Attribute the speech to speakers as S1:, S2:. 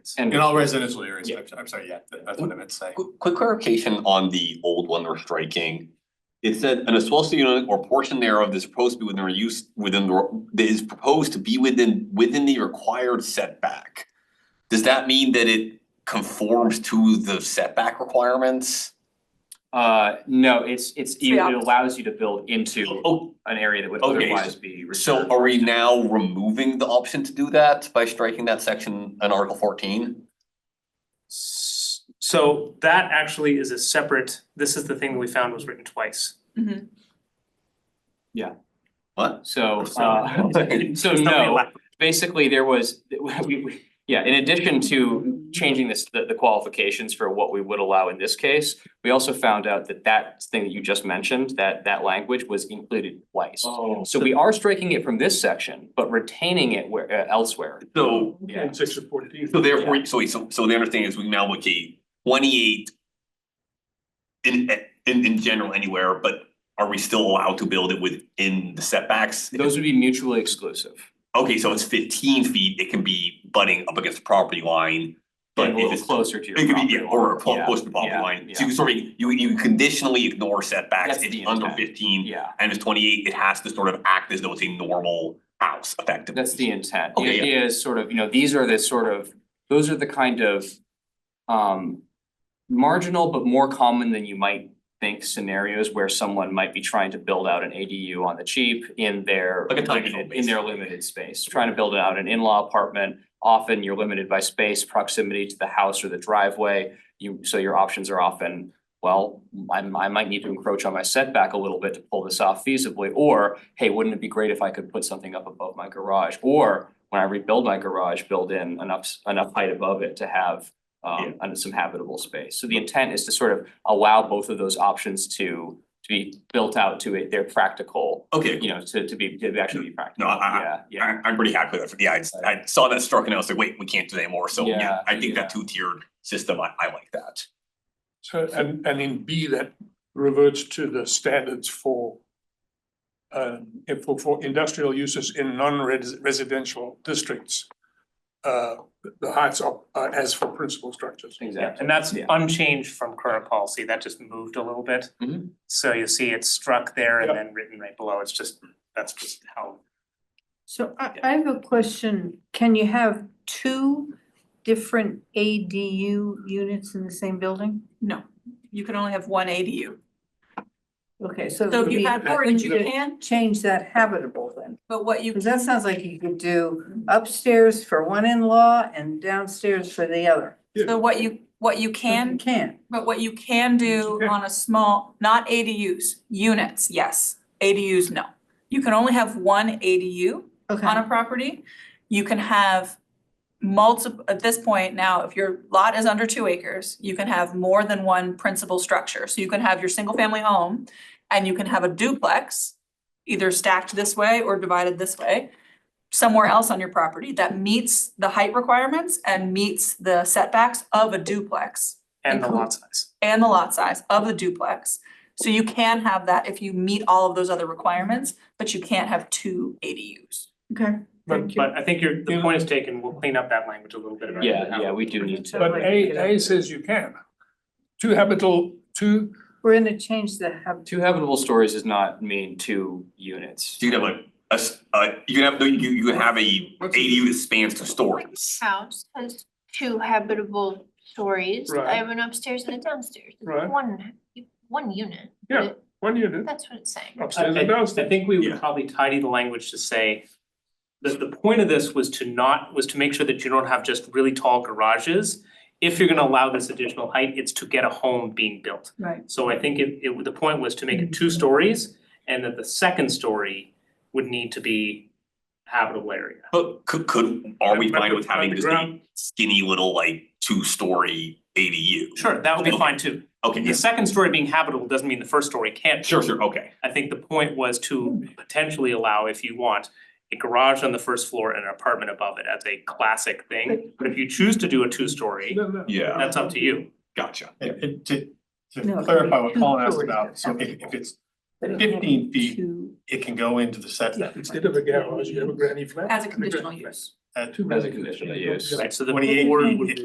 S1: And
S2: In all residential areas,
S1: Yeah.
S2: I'm I'm sorry, yeah, that- that's what I meant to say.
S1: qu- quick clarification on the old one we're striking. It said an associated unit or portion thereof is proposed to be within or use within the that is proposed to be within within the required setback. Does that mean that it conforms to the setback requirements?
S3: Uh, no, it's it's
S4: the
S3: it it
S4: opposite.
S3: allows you to build into
S1: Oh,
S3: an area that would
S1: Okay,
S3: otherwise be reserved.
S1: so are we now removing the option to do that by striking that section in Article fourteen?
S5: S- So that actually is a separate, this is the thing that we found was written twice.
S1: What? Oh,
S3: So uh, so
S5: It's not really
S3: no,
S5: lack-
S3: basically there was, we we, yeah, in addition to changing this, the the qualifications for what we would allow in this case. We also found out that that thing that you just mentioned, that that language was included twice.
S2: Oh.
S3: So we are striking it from this section, but retaining it where uh, elsewhere.
S1: So
S3: Yeah.
S2: Section fourteen.
S1: So therefore, so wait, so so the understanding is we now look at twenty-eight. In in in general anywhere, but are we still allowed to build it within the setbacks?
S3: Those would be mutually exclusive.
S1: Okay, so it's fifteen feet, it can be butting up against the property line, but
S3: and a
S1: if
S3: little
S1: it's.
S3: closer to your
S1: It could
S3: property
S1: be,
S3: line.
S1: yeah, or close
S3: Yeah,
S1: close to the property
S3: yeah,
S1: line, so
S3: yeah.
S1: you sort of, you you conditionally ignore setbacks,
S3: That's
S1: it's
S3: the
S1: under
S3: intent.
S1: fifteen.
S3: Yeah,
S1: And if it's twenty-eight, it has to sort of act as though it's a normal house effectively.
S3: that's the intent. The
S1: Okay, yeah.
S3: idea is sort of, you know, these are the sort of, those are the kind of um marginal but more common than you might think scenarios where someone might be trying to build out an ADU on the cheap in their
S1: Like a tiny home,
S3: limited- in their
S1: basically.
S3: limited space, trying to build out an in-law apartment. Often you're limited by space, proximity to the house or the driveway. You, so your options are often well, I I might need to encroach on my setback a little bit to pull this off feasibly, or hey, wouldn't it be great if I could put something up above my garage? Or when I rebuild my garage, build in enough s- enough height above it to have um and some habitable space. So the intent is to sort of allow both of those options to to be built out to a their practical,
S1: Okay,
S3: you know, to to be to actually be practical,
S1: I- I-
S3: yeah, yeah.
S1: I I'm pretty happy with that, yeah, I just- I saw that struck and I was like, wait, we can't do that anymore, so yeah,
S3: Yeah,
S1: I think that
S3: yeah.
S1: two tiered system, I I like that.
S6: So and and in B, that reverts to the standards for. Um, if for for industrial uses in non-residential districts. Uh, the heights are are as for principal structures.
S5: Yeah,
S3: Exactly.
S5: and that's
S3: Yeah.
S5: unchanged from current policy, that just moved a little bit.
S3: Mhm.
S5: So you see it's struck there and
S6: Yep.
S5: then written right below, it's just, that's just how.
S4: So I, I have a question. Can you have two different ADU units in the same building?
S7: No, you can only have one ADU.
S4: Okay, so. it
S7: So
S4: would
S7: if you
S4: be-
S7: had
S4: wouldn't
S7: orange, you
S4: you
S7: can,
S4: Change that habitable then,
S7: but what you,
S4: because that sounds like you could do upstairs for one in-law and downstairs for the other.
S7: so what you, what you
S4: You
S7: can,
S4: Can't.
S7: but what you can do on a small, not ADUs, units, yes. ADUs, no. You can only have one ADU on
S4: Okay,
S7: a property. You can have multiple, at this point now, if your lot is under two acres, you can have more than one principal structure. So you can have your single-family home and you can have a duplex, either stacked this way or divided this way, somewhere else on your property that meets the height requirements and meets the setbacks of a duplex
S5: And the
S7: Include-
S5: lot size.
S7: and the lot size of the duplex. So you can have that if you meet all of those other requirements, but you can't have two ADUs.
S4: okay.
S5: But
S4: Thank you.
S5: but I think your, the point is taken, we'll clean up that language a little bit about
S3: Yeah,
S5: how-
S3: yeah, we do need to.
S6: But A A says you can. Two habitable, two,
S4: We're gonna change the hab,
S3: Two habitable stories does not mean two units.
S1: So you can have like a s- uh you can have, no, you you can have a ADU that spans two stories.
S8: house has two habitable stories. I
S6: Right.
S8: have an upstairs and a downstairs. It's
S6: Right.
S8: One, one unit.
S6: Yeah.
S8: but
S6: one unit
S8: That's what it's saying.
S6: upstairs
S5: I-
S6: and
S5: I
S6: downstairs.
S5: think we
S1: Yeah.
S5: would probably tidy the language to say. The the point of this was to not, was to make sure that you don't have just really tall garages. If you're gonna allow this additional height, it's to get a home being built.
S7: Right.
S5: So I think it it, the point was to make it two stories and that the second story would need to be habitable area.
S1: But could could, are we
S6: But- but
S1: fine with having just a
S6: underground-
S1: skinny little like two story ADU?
S5: Sure, that would be fine too.
S1: Okay,
S5: The
S1: yes,
S5: second story being habitable doesn't mean the first story can't be.
S1: sure, sure, okay,
S5: I think the point was to potentially allow, if you want, a garage on the first floor and an apartment above it as a classic thing. But if you choose to do a two-story,
S6: No, no.
S1: yeah,
S5: that's up to you.
S1: gotcha.
S2: And and to
S4: No,
S2: to
S4: it's
S2: clarify what
S4: two
S2: Colin asked
S4: stories
S2: about,
S4: of
S2: so if if
S4: habitable.
S2: it's,
S4: but it can't be
S2: 15 feet.
S4: two-
S2: it can go into the setback.
S6: Instead of a garage, you have a granny flat.
S7: As a conditional use.
S6: at
S9: As a condition of use.
S2: Right, so the
S6: Twenty-eight
S2: board
S6: feet,
S2: would
S6: it-